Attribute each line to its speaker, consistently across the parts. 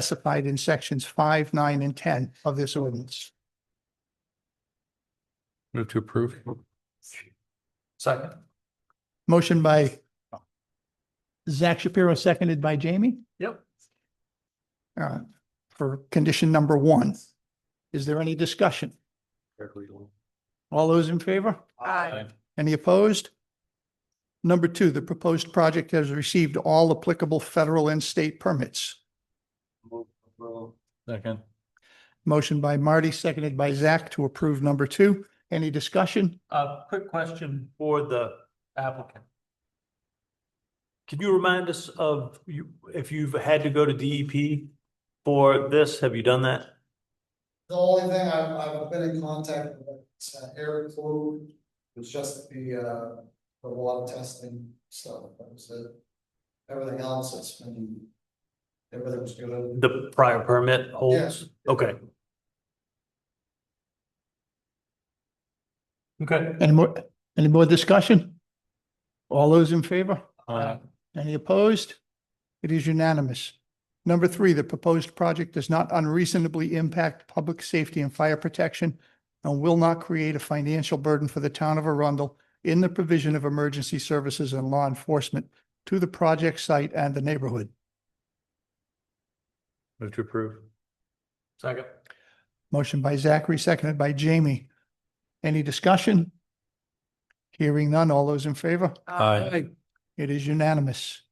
Speaker 1: specified in sections five, nine, and ten of this ordinance.
Speaker 2: Move to approve.
Speaker 3: Second.
Speaker 1: Motion by Zach Shapiro, seconded by Jamie,
Speaker 3: Yep.
Speaker 1: uh, for condition number one. Is there any discussion? All those in favor?
Speaker 3: Aye.
Speaker 1: Any opposed? Number two, the proposed project has received all applicable federal and state permits.
Speaker 2: Second.
Speaker 1: Motion by Marty, seconded by Zach to approve number two. Any discussion?
Speaker 3: Uh, quick question for the applicant. Can you remind us of you, if you've had to go to DEP for this, have you done that?
Speaker 4: The only thing I've, I've been in contact with uh, Eric Blue, was just the, uh, the water testing stuff, that was it. Everything else has been, everything was good.
Speaker 3: The prior permit holds? Okay. Okay.
Speaker 1: Any more, any more discussion? All those in favor?
Speaker 2: Aye.
Speaker 1: Any opposed? It is unanimous. Number three, the proposed project does not unreasonably impact public safety and fire protection and will not create a financial burden for the town of Arundel in the provision of emergency services and law enforcement to the project site and the neighborhood.
Speaker 2: Move to approve.
Speaker 3: Second.
Speaker 1: Motion by Zachary, seconded by Jamie. Any discussion? Hearing none. All those in favor?
Speaker 2: Aye.
Speaker 1: It is unanimous.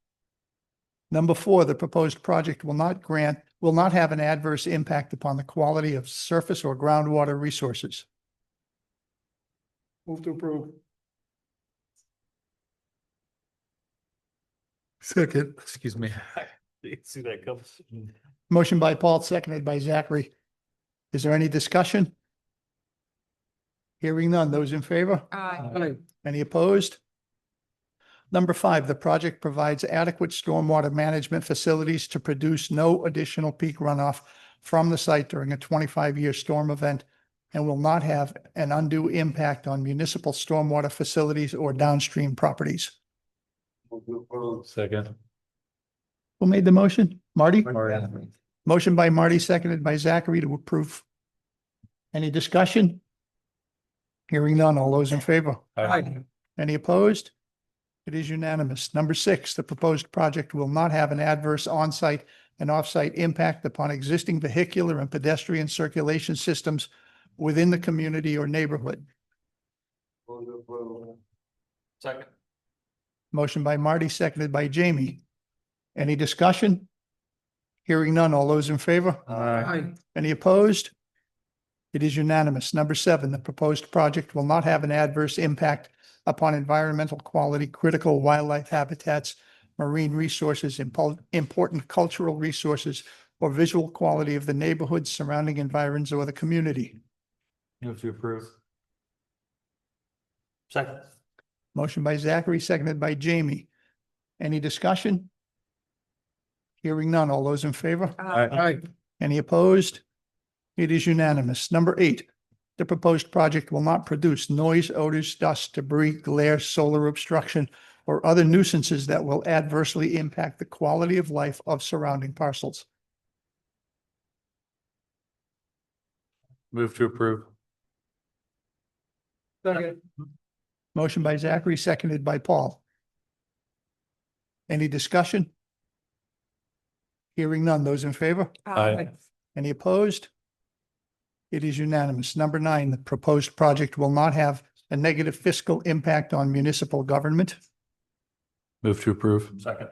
Speaker 1: Number four, the proposed project will not grant, will not have an adverse impact upon the quality of surface or groundwater resources. Move to approve.
Speaker 2: Second. Excuse me.
Speaker 3: You See that comes.
Speaker 1: Motion by Paul, seconded by Zachary. Is there any discussion? Hearing none. Those in favor?
Speaker 3: Aye.
Speaker 1: Any opposed? Number five, the project provides adequate stormwater management facilities to produce no additional peak runoff from the site during a twenty-five-year storm event and will not have an undue impact on municipal stormwater facilities or downstream properties.
Speaker 2: Second.
Speaker 1: Who made the motion? Marty?
Speaker 2: Aye.
Speaker 1: Motion by Marty, seconded by Zachary to approve. Any discussion? Hearing none. All those in favor? Any opposed? It is unanimous. Number six, the proposed project will not have an adverse on-site and off-site impact upon existing vehicular and pedestrian circulation systems within the community or neighborhood.
Speaker 3: Second.
Speaker 1: Motion by Marty, seconded by Jamie. Any discussion? Hearing none. All those in favor?
Speaker 2: Aye.
Speaker 1: Any opposed? It is unanimous. Number seven, the proposed project will not have an adverse impact upon environmental quality, critical wildlife habitats, marine resources, impo- important cultural resources, or visual quality of the neighborhood, surrounding environs, or the community.
Speaker 2: Move to approve.
Speaker 3: Second.
Speaker 1: Motion by Zachary, seconded by Jamie. Any discussion? Hearing none. All those in favor?
Speaker 2: Aye.
Speaker 1: Any opposed? It is unanimous. Number eight, the proposed project will not produce noise, odors, dust, debris, glare, solar obstruction, or other nuisances that will adversely impact the quality of life of surrounding parcels.
Speaker 2: Move to approve.
Speaker 3: Second.
Speaker 1: Motion by Zachary, seconded by Paul. Any discussion? Hearing none. Those in favor?
Speaker 2: Aye.
Speaker 1: Any opposed? It is unanimous. Number nine, the proposed project will not have a negative fiscal impact on municipal government.
Speaker 2: Move to approve.
Speaker 3: Second.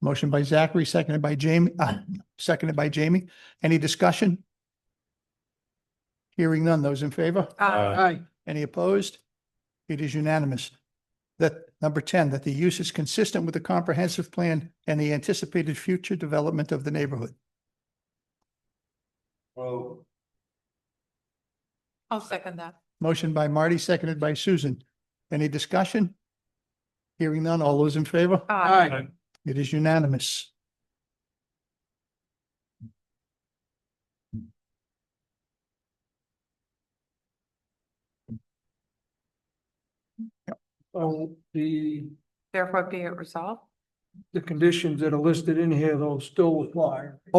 Speaker 1: Motion by Zachary, seconded by Jamie, uh, seconded by Jamie. Any discussion? Hearing none. Those in favor?
Speaker 2: Aye.
Speaker 1: Any opposed? It is unanimous. That, number ten, that the use is consistent with the comprehensive plan and the anticipated future development of the neighborhood.
Speaker 5: I'll second that.
Speaker 1: Motion by Marty, seconded by Susan. Any discussion? Hearing none. All those in favor? It is unanimous.
Speaker 5: Therefore be it resolved
Speaker 6: the conditions that are listed in here, though, still apply.